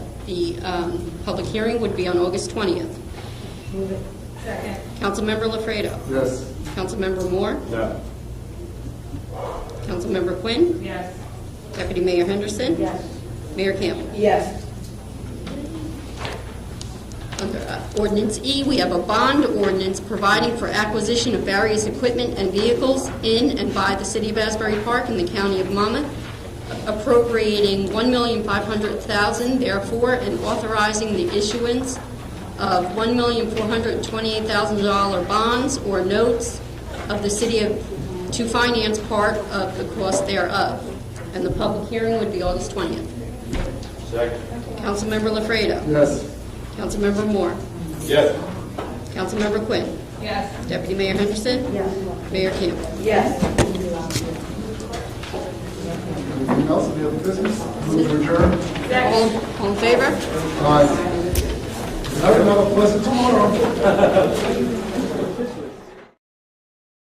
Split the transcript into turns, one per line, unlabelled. The um, public hearing would be on August 20th.
Move it. Second.
Councilmember Lafredo.
Yes.
Councilmember Moore.
No.
Councilmember Quinn.
Yes.
Deputy Mayor Henderson. Mayor Campbell.
Yes.
Under uh, ordinance E, we have a bond ordinance providing for acquisition of various equipment and vehicles in and by the city of Asbury Park and the county of Monmouth, appropriating $1,500,000 therefore, and authorizing the issuance of $1,428,000 bonds or notes of the city of, to finance part of the cost thereof. And the public hearing would be August 20th.
Second.
Councilmember LaFredo.
Yes.
Councilmember Moore.
Yes.
Councilmember Quinn.
Yes.
Deputy Mayor Henderson. Mayor Campbell.
Yes.
Anything else, any other business? Move to adjourn.
All all in favor?
Aye. Have another pleasant tomorrow.